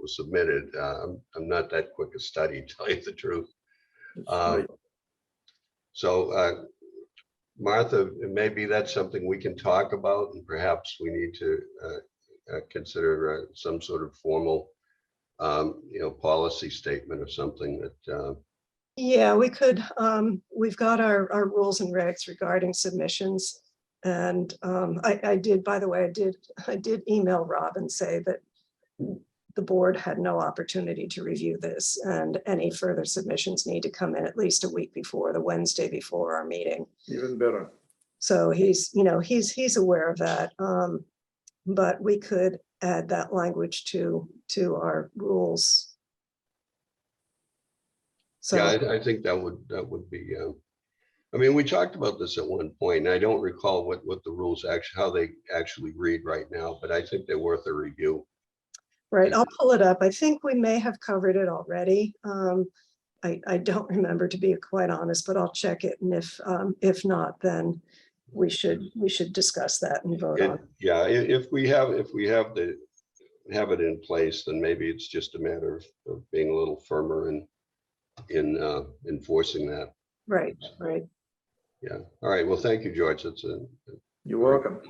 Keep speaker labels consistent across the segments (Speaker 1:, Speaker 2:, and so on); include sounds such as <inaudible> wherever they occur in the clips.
Speaker 1: was submitted. Uh, I'm, I'm not that quick a study, <laughs> to tell you the truth. Um, So uh, Martha, maybe that's something we can talk about and perhaps we need to uh, uh, consider uh, some sort of formal, um, you know, policy statement or something that, uh,
Speaker 2: Yeah, we could, um, we've got our, our rules and regs regarding submissions. And, um, I, I did, by the way, I did, I did email Rob and say that the board had no opportunity to review this and any further submissions need to come in at least a week before, the Wednesday before our meeting.
Speaker 3: Even better.
Speaker 2: So he's, you know, he's, he's aware of that. Um, but we could add that language to, to our rules.
Speaker 1: yeah,
Speaker 2: So,
Speaker 1: I, I think that would, that would be, uh, I mean, we talked about this at one point and I don't recall what, what the rules actually, how they actually read right now, but I think they're worth a review.
Speaker 2: right, I'll pull it up. I think we may have covered it already. Um, I, I don't remember to be quite honest, but I'll check it. And if, um, if not, then we should, we should discuss that and vote on.
Speaker 1: It- Yeah, i- if we have, if we have the, have it in place, then maybe it's just a matter of, of being a little firmer in, in uh, enforcing that.
Speaker 2: Right, right.
Speaker 1: Yeah. All right. Well, thank you, George. That's a.
Speaker 3: You're welcome.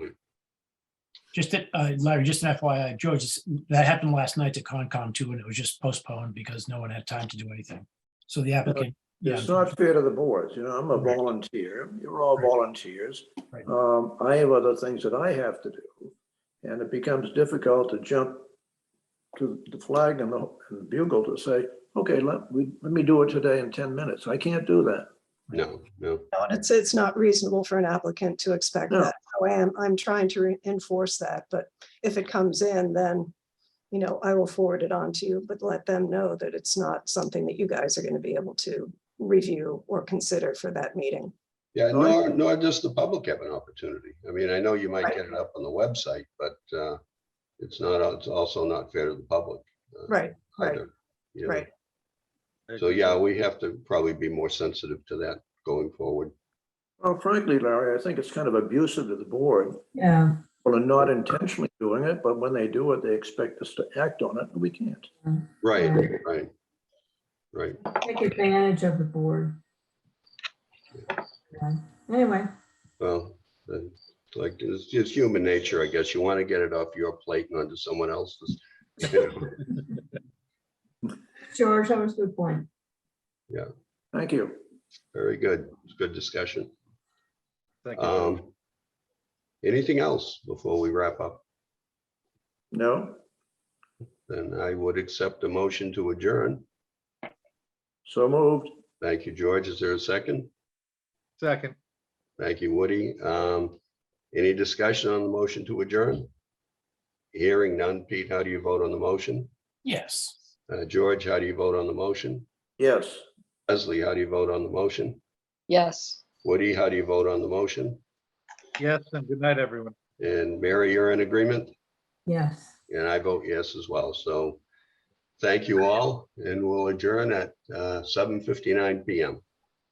Speaker 4: Just that, uh, Larry, just an FYI, George, this- that happened last night to Concom too, and it was just postponed because no one had time to do anything. So the applicant. yeah,
Speaker 3: It's not fair to the boards, you know, I'm a volunteer, you're all
Speaker 4: Right.
Speaker 3: volunteers.
Speaker 4: Right.
Speaker 3: Um, I have other things that I have to do. And it becomes difficult to jump to the flag and the and the bugle to say, okay, let, we, let me do it today in ten minutes. I can't do that.
Speaker 1: No, no.
Speaker 2: No, and it's, it's not reasonable for an applicant to expect
Speaker 3: No.
Speaker 2: that. So I am, I'm trying to re- enforce that, but if it comes in, then, you know, I will forward it on to you, but let them know that it's not something that you guys are going to be able to review or consider for that meeting.
Speaker 1: Yeah,
Speaker 3: No, I-
Speaker 1: nor, nor does the public have an opportunity. I mean, I know you might
Speaker 2: Right.
Speaker 1: get it up on the website, but uh, it's not, it's also not fair to the public. uh,
Speaker 2: Right, right,
Speaker 1: either, you know.
Speaker 2: right.
Speaker 1: So, yeah, we have to probably be more sensitive to that going forward.
Speaker 3: Well, frankly, Larry, I think it's kind of abusive to the board.
Speaker 5: Yeah,
Speaker 3: Well, are not intentionally doing it, but when they do it, they expect us to act on it, and we can't.
Speaker 1: Right,
Speaker 5: Yeah.
Speaker 1: right. Right.
Speaker 5: take advantage of the board. Yeah. Anyway,
Speaker 1: Well, uh, like, it's just human nature, I guess. You want to get it off your plate and onto someone else's. <laughs>
Speaker 5: George, that was a good point.
Speaker 3: Thank you.
Speaker 1: Very good. It's good discussion.
Speaker 6: Thank you.
Speaker 1: Um, anything else before we wrap up?
Speaker 3: No,
Speaker 1: Then I would accept a motion to adjourn.
Speaker 3: so moved.
Speaker 1: Thank you, George. Is there a second?
Speaker 6: Second,
Speaker 1: Thank you, Woody. Um, any discussion on the motion to adjourn? Hearing none. Pete, how do you vote on the motion?
Speaker 4: Yes.
Speaker 1: Uh, George, how do you vote on the motion?
Speaker 3: Yes.
Speaker 1: Leslie, how do you vote on the motion?
Speaker 7: Yes.
Speaker 1: Woody, how do you vote on the motion?
Speaker 6: yes, and good night, everyone.
Speaker 1: And Mary, you're in agreement,
Speaker 5: Yes.
Speaker 1: and I vote yes as well. So thank you all, and we'll adjourn at uh, 7:59 PM.